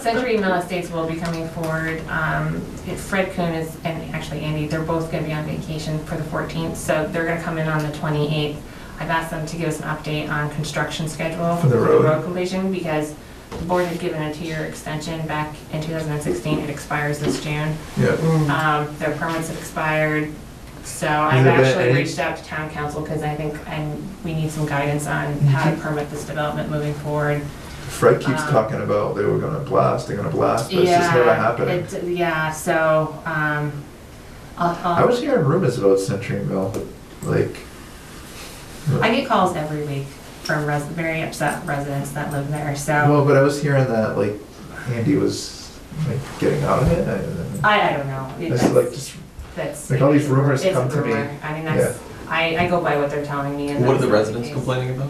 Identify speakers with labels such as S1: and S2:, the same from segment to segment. S1: Century Mill Estates will be coming forward. Um, Fred Kuhn is, and actually Andy, they're both going to be on vacation for the 14th, so they're going to come in on the 28th. I've asked them to give us an update on construction schedule.
S2: For the road.
S1: completion, because the board had given a two-year extension back in 2016. It expires this June.
S2: Yeah,
S1: Um, Their permits have expired, so I've
S2: there been
S1: actually
S2: any-
S1: reached out to town council because I think I'm- we need some guidance on
S2: Mm-hmm.
S1: how to permit this development moving forward.
S2: Fred keeps
S1: Um,
S2: talking about they were gonna blast, they're gonna blast, but it's just never happening.
S1: it- yeah, so, um, I'll,
S2: I
S1: I'll,
S2: was hearing rumors about Century Mill, like,
S1: I get calls every week from res, very upset residents that live there, so,
S2: well, but I was hearing that like Andy was like getting out of it. I-
S1: I, I don't know. It-
S2: It's like just
S1: That's.
S2: like all these rumors
S1: it's a
S2: come to me.
S1: rumor. I mean, that's, I, I go by what they're telling me and.
S3: What are
S1: that's
S3: the
S1: not
S3: residents
S1: case.
S3: complaining about?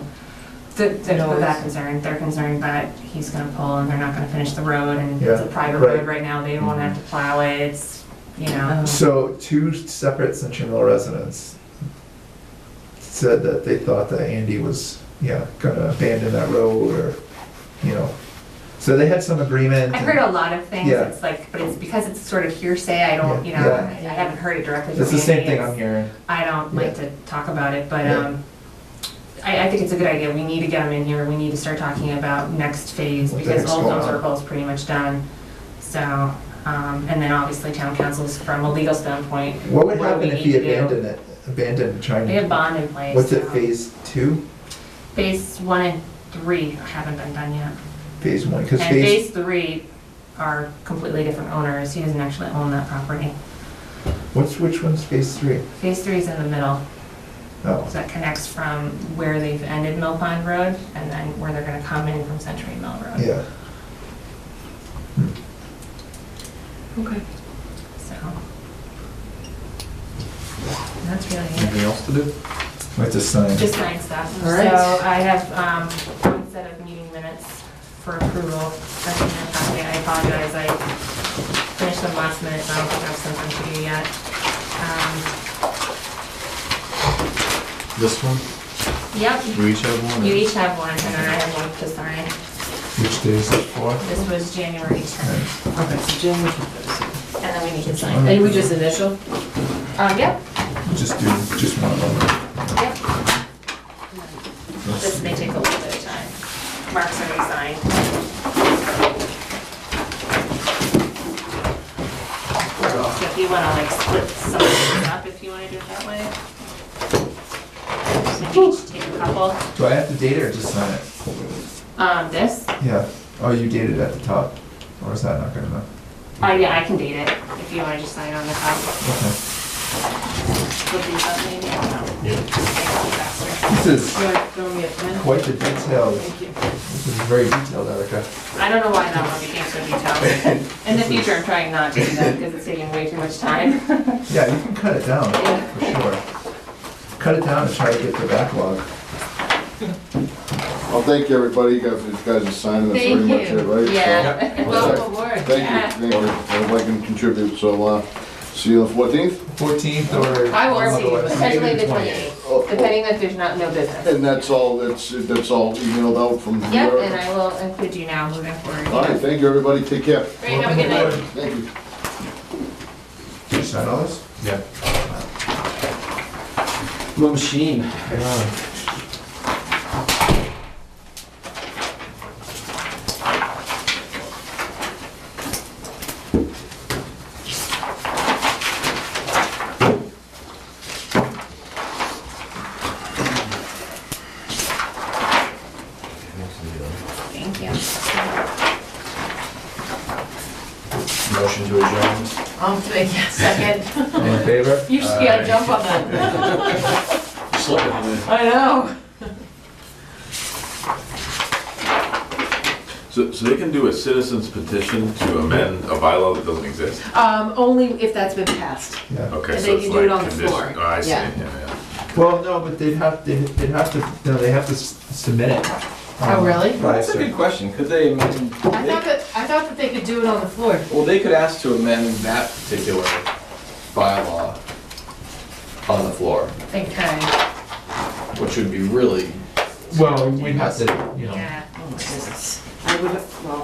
S1: Th- They're
S4: Noise.
S1: that concerned, they're concerned that he's gonna pull and they're not gonna finish the road and
S2: Yeah,
S1: it's a private
S2: right.
S1: road right now, they won't have to plow it, it's, you know.
S4: Oh.
S2: So two separate Century Mill residents said that they thought that Andy was, yeah, gonna abandon that road or, you know. So they had some agreement.
S1: I've heard a lot of things,
S2: Yeah.
S1: it's like, but it's because it's sort of hearsay, I don't, you know,
S2: Yeah.
S1: I haven't heard it directly from
S2: It's the same
S1: Andy,
S2: thing
S1: it's-
S2: I'm hearing.
S1: I don't like to talk about it, but, um, I, I think it's a good idea, we need to get them in here, we need to start talking about next phase,
S2: What the
S1: because
S2: heck's
S1: Old
S2: going
S1: Town
S2: on?
S1: Circle is pretty much done. So, um, and then obviously town councils from a legal standpoint.
S2: What would
S1: do
S2: happen
S1: we
S2: if
S1: need
S2: he
S1: to do?
S2: abandoned it, abandoned trying
S1: They have
S2: to,
S1: bond in place.
S2: what's it,
S1: so-
S2: phase two?
S1: Phase one and three haven't been done yet.
S2: Phase one, because
S1: And
S2: phase,
S1: phase three are completely different owners, he doesn't actually own that property.
S2: what's, which one's phase three?
S1: Phase three is in the middle,
S2: Oh,
S1: so that connects from where they've ended Mill Pond Road and then where they're gonna come in from Century Mill Road,
S2: yeah.
S4: Okay.
S1: so. That's really it.
S3: Anything else to do?
S2: Might just sign.
S1: Just nine stuff.
S4: All right.
S1: So I have um, one set of meeting minutes for approval. That's in your packet. I apologize, I finished them last minute, so I don't think I've sent them to you yet. Um,
S3: This one?
S1: Yep,
S3: We each have one?
S1: you each have one, and then I have one to sign.
S2: Which day is it for?
S1: This was January 10th,
S4: Okay, so Jim, we can put
S1: and then we need to
S4: this
S1: sign.
S4: in. And we just initial?
S1: Uh, yep,
S2: Just do, just one of them.
S1: yep. This may take a little bit of time. Mark's already signed. So if you wanna like split some of these up, if you wanna do it that way. Maybe each take a couple.
S2: Do I have to date it or just sign it?
S1: Um, this,
S2: Yeah, oh, you dated at the top, or is that not good enough?
S1: oh yeah, I can date it, if you wanna just sign on the top.
S2: Okay.
S1: Flip these up maybe, I don't know.
S3: Yeah.
S1: Make it faster.
S2: This
S4: You
S2: is
S4: want to throw me a pen?
S2: quite the detailed,
S4: Thank you.
S2: this is very detailed, Erica.
S1: I don't know why that one became so detailed. In the future, I'm trying not to do that, because it's taking way too much time.
S2: Yeah, you can cut it down,
S1: Yeah.
S2: for sure. Cut it down and try to get the backlog.
S5: Well, thank you, everybody, you guys, you guys are signing, that's pretty much it, right? So,
S1: Yeah.
S5: Well,
S4: aboard.
S5: Thank you, thank you, if I can contribute, so, uh, see you on the fourteenth,
S2: Fourteenth or.
S1: I will see,
S2: otherwise,
S1: potentially
S2: maybe
S1: the
S2: 20th.
S1: 28th, depending if there's not, no business.
S5: and that's all, that's, that's all emailed out from
S1: Yep,
S5: here.
S1: and I will include you now moving forward.
S5: All right, thank you, everybody, take care,
S1: Great, have a good night.
S5: thank you.
S2: Did you sign all this?
S3: Yeah.
S6: My machine.
S1: Thank you.
S3: Motion to adjourn.
S4: Um, thank you, second.
S2: All in favor?
S4: You just gotta jump on that.
S6: Slip it.
S4: I know.
S7: So, so they can do a citizen's petition to amend a bylaw that doesn't exist?
S4: Um, only if that's been passed.
S2: Yeah.
S7: Okay,
S4: And
S7: so
S4: they
S7: it's
S4: can do it
S7: like
S4: on the
S7: condition-
S4: floor.
S7: Oh, I see,
S4: Yeah.
S7: yeah, yeah.
S2: Well, no, but they'd have, they'd they'd have to, no, they have to s- submit it.
S4: Oh,
S2: um,
S4: really?
S2: by a
S3: That's a
S2: certain-
S3: good question. Could they amend?
S4: I thought that, I thought that they could do it on the floor.
S3: Well, they could ask to amend that particular bylaw on the floor,
S1: They could,
S3: which would be really
S2: Well, we'd have to, you know.
S1: yeah.
S4: Oh my goodness. I would, well.